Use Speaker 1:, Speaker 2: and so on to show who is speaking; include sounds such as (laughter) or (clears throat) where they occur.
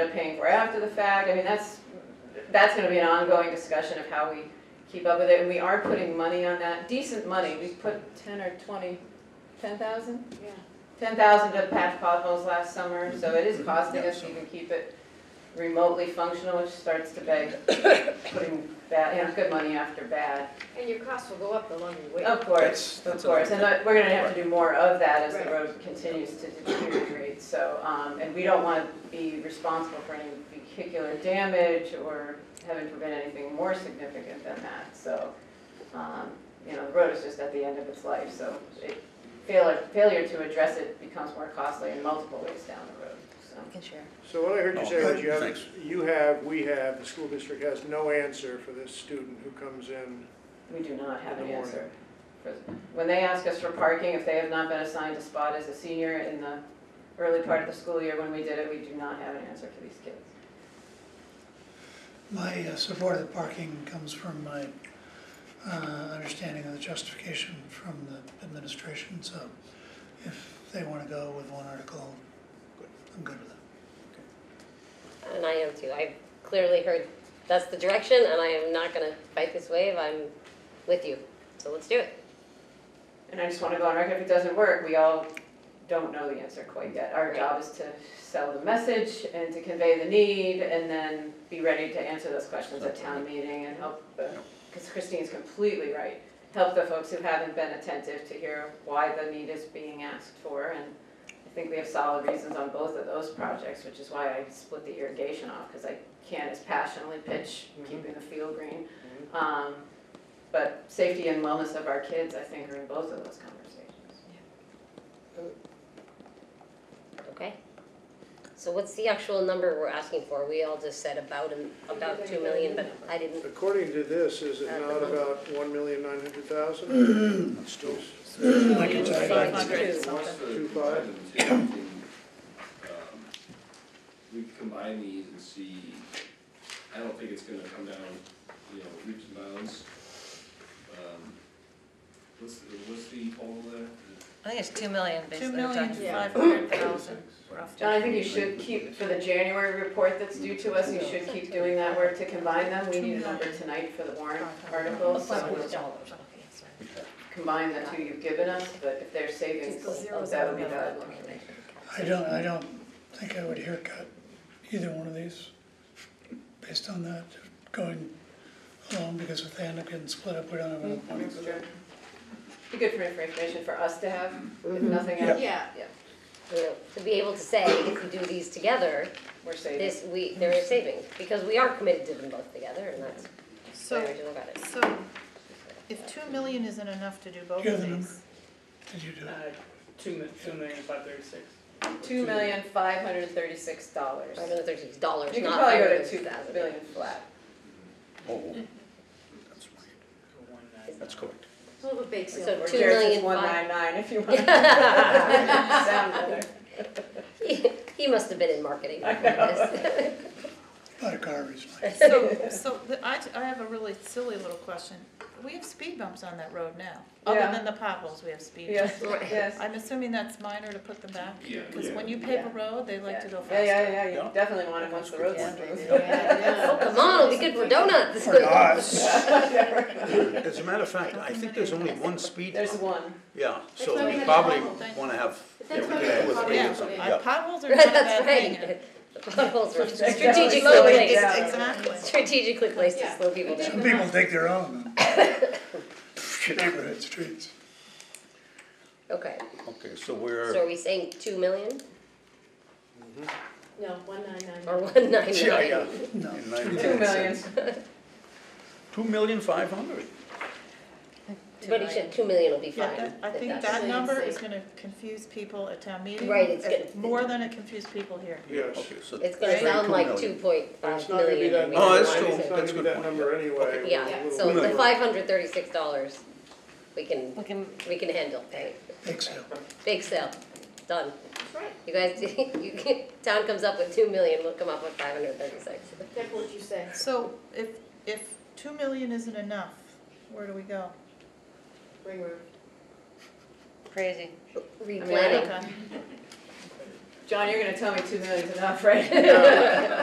Speaker 1: they're paying for after the fact, I mean, that's, that's gonna be an ongoing discussion of how we keep up with it, and we are putting money on that, decent money, we put ten or twenty, ten thousand?
Speaker 2: Yeah.
Speaker 1: Ten thousand to patch potholes last summer, so it is costing us to even keep it remotely functional, which starts to beg, putting bad, you know, good money after bad.
Speaker 2: And your costs will go up the longer you
Speaker 3: Oh.
Speaker 2: wait.
Speaker 1: Of
Speaker 4: That's-
Speaker 1: course, of
Speaker 4: that's
Speaker 1: course, and uh, we're gonna have to do more of that as the
Speaker 2: Right.
Speaker 1: road continues to deteriorate, so, um, and we don't wanna be responsible for any particular damage or heaven forbid anything more significant than that, so, um, you know, the road is just at the end of its life, so it, failure, failure to address it becomes more costly in multiple ways down the road, so.
Speaker 5: can share.
Speaker 6: So what I heard you
Speaker 7: Oh,
Speaker 6: say was you have,
Speaker 4: Thanks.
Speaker 6: you have, we have, the school district has no answer for this student who comes in.
Speaker 1: We do not have
Speaker 6: In
Speaker 1: an
Speaker 6: the morning.
Speaker 1: answer. for- When they ask us for parking, if they have not been assigned a spot as a senior in the early part of the school year when we did it, we do not have an answer for these kids.
Speaker 8: My uh, support of parking comes from my uh, understanding of the justification from the administration, so if they want to go with one article, I'm good with it.
Speaker 3: And I am too. I've clearly heard that's the direction, and I am not gonna fight this wave. I'm with you. So let's do it.
Speaker 1: And I just want to go on record, if it doesn't work, we all don't know the answer quite yet. Our job is to sell the message and to convey the need and then be ready to answer those questions at town meeting and help, because Christine's completely right. Help the folks who haven't been attentive to hear why the need is being asked for. And I think we have solid reasons on both of those projects, which is why I split the irrigation off, because I can't as passionately pitch keeping the field green. Um, but safety and wellness of our kids, I think, are in both of those conversations.
Speaker 3: Okay? So what's the actual number we're asking for? We all just said about an, about two million, but I didn't.
Speaker 6: According to this, is it
Speaker 3: At the
Speaker 6: not
Speaker 3: moment.
Speaker 6: about one million nine hundred
Speaker 7: (clears throat)
Speaker 6: thousand?
Speaker 4: Still.
Speaker 8: I can tell
Speaker 3: Five
Speaker 8: you that.
Speaker 3: hundred
Speaker 4: So
Speaker 3: something.
Speaker 4: what's the
Speaker 6: Two five.
Speaker 4: item (coughs) two? I mean, um, We can combine these and see, I don't think it's gonna come down, you know, leaps and bounds. Um, What's, the- what's the total there?
Speaker 5: I think it's two million,
Speaker 9: Two
Speaker 5: basically. we're
Speaker 9: million
Speaker 5: talking.
Speaker 9: five
Speaker 4: (coughs)
Speaker 9: hundred thousand, roughly.
Speaker 1: John, I think you should keep, for the January report that's due to us, you should keep doing that work to combine them. We need a number tonight for the warrant articles, so
Speaker 3: Dollars. Okay, sorry.
Speaker 1: combine the two you've given us, but if there's savings, that would be valuable.
Speaker 8: I don't, I don't think I would haircut either one of these based on that, going along, because if they end up getting split up, we don't have enough money.
Speaker 1: Be good for information for us to have, if nothing else,
Speaker 2: Yeah,
Speaker 3: You know, to be able to say, if we do these together,
Speaker 1: we're saving.
Speaker 3: this, we, there is savings, because we are committed to them both together, and that's the way
Speaker 9: So,
Speaker 3: I do about it.
Speaker 9: so if two million isn't enough to do both
Speaker 8: Yeah,
Speaker 9: of
Speaker 8: the
Speaker 9: these,
Speaker 8: Did you do it?
Speaker 7: Two mi- two million five thirty-six.
Speaker 1: Two million, five hundred and thirty-six dollars.
Speaker 3: Five hundred thirty dollars,
Speaker 1: You can
Speaker 3: not
Speaker 1: probably
Speaker 3: five
Speaker 1: go
Speaker 3: hundred
Speaker 1: to
Speaker 3: thirty
Speaker 1: two
Speaker 3: thousand.
Speaker 1: billion flat.
Speaker 7: That's Oh, correct.
Speaker 2: it's a little bit bake sale.
Speaker 3: So
Speaker 1: Or
Speaker 3: two
Speaker 1: Jared's is
Speaker 3: million
Speaker 1: one
Speaker 3: five-
Speaker 1: nine nine if
Speaker 3: (laughs)
Speaker 1: you want. Sound better.
Speaker 3: He, he must have been in marketing.
Speaker 1: I
Speaker 7: (laughs)
Speaker 1: know.
Speaker 8: Lot of garbage, Mike.
Speaker 9: so, so the- I, I have a really silly little question. We have speed bumps on that road now,
Speaker 1: Yeah.
Speaker 9: other than the potholes, we have speed bumps.
Speaker 1: Yes, yes.
Speaker 9: I'm assuming that's minor to put them back,
Speaker 4: Yeah.
Speaker 9: because
Speaker 4: yeah.
Speaker 9: when you pave
Speaker 1: Yeah.
Speaker 9: a road, they like to go
Speaker 1: Yeah,
Speaker 9: faster.
Speaker 1: yeah, yeah, you
Speaker 7: Yeah.
Speaker 1: definitely want it once the road's
Speaker 9: Yeah.
Speaker 1: improved. (laughs)
Speaker 3: Oh, come on, it'll be good for donuts.
Speaker 4: For
Speaker 3: (laughs)
Speaker 4: us.
Speaker 7: As a matter of fact, I think there's only one speed
Speaker 1: There's
Speaker 7: bump.
Speaker 1: one.
Speaker 7: Yeah, so
Speaker 2: why we
Speaker 7: we
Speaker 2: had
Speaker 7: probably
Speaker 2: the pothole.
Speaker 7: wanna have, yeah,
Speaker 2: That's
Speaker 7: we
Speaker 2: why we
Speaker 7: could
Speaker 2: had
Speaker 7: have with
Speaker 2: the
Speaker 7: me or
Speaker 2: pothole.
Speaker 7: something,
Speaker 9: Uh,
Speaker 7: yeah.
Speaker 9: Potholes are not
Speaker 1: (laughs)
Speaker 9: a
Speaker 3: That's
Speaker 9: bad thing.
Speaker 3: right. The potholes were
Speaker 1: Strategically
Speaker 3: strategically
Speaker 1: slowed
Speaker 3: placed,
Speaker 1: down.
Speaker 9: Exactly.
Speaker 3: strategically placed to slow people down.
Speaker 8: Some people dig their own neighborhood streets.
Speaker 3: Okay,
Speaker 4: Okay, so
Speaker 3: so
Speaker 4: we're.
Speaker 3: are we saying two million
Speaker 2: No, one nine
Speaker 3: or
Speaker 2: nine.
Speaker 3: one ninety
Speaker 7: (laughs) Yeah,
Speaker 3: nine?
Speaker 7: yeah.
Speaker 8: No.
Speaker 1: Two million.
Speaker 7: Two million five hundred.
Speaker 3: But he said two million will be
Speaker 9: Yeah,
Speaker 3: fine.
Speaker 9: that- I
Speaker 3: if
Speaker 9: think
Speaker 3: that's-
Speaker 9: that
Speaker 2: the
Speaker 9: number
Speaker 2: same
Speaker 9: is
Speaker 2: thing.
Speaker 9: gonna confuse people at town meeting.
Speaker 3: Right, it's
Speaker 9: uh,
Speaker 3: gonna-
Speaker 9: More than it confused people here.
Speaker 6: Yes.
Speaker 7: Okay, so.
Speaker 3: It's gonna
Speaker 7: say
Speaker 3: sound like two
Speaker 7: million.
Speaker 3: point
Speaker 6: It's
Speaker 3: five
Speaker 6: not gonna be
Speaker 3: million.
Speaker 6: that.
Speaker 3: when we
Speaker 7: Oh,
Speaker 6: number,
Speaker 7: that's
Speaker 3: analyze
Speaker 7: true.
Speaker 3: it.
Speaker 6: It's not
Speaker 7: That's
Speaker 6: gonna be
Speaker 7: a good
Speaker 6: that
Speaker 7: point,
Speaker 6: number anyway.
Speaker 3: Yeah,
Speaker 6: We're a little
Speaker 3: so the
Speaker 6: bit-
Speaker 3: five hundred thirty six dollars, we can,
Speaker 5: We can,
Speaker 3: we can handle, right?
Speaker 8: Big sale.
Speaker 3: Bake sale, done. You guys, (laughs) you can, town comes up with two million, we'll come up with five hundred thirty-six.
Speaker 2: That's what you say.
Speaker 9: So if, if two million isn't enough, where do we go?
Speaker 2: Ring road.
Speaker 5: crazy.
Speaker 1: I mean,
Speaker 3: Replanning,
Speaker 9: Okay.
Speaker 1: John, you're gonna tell me two million's enough, right?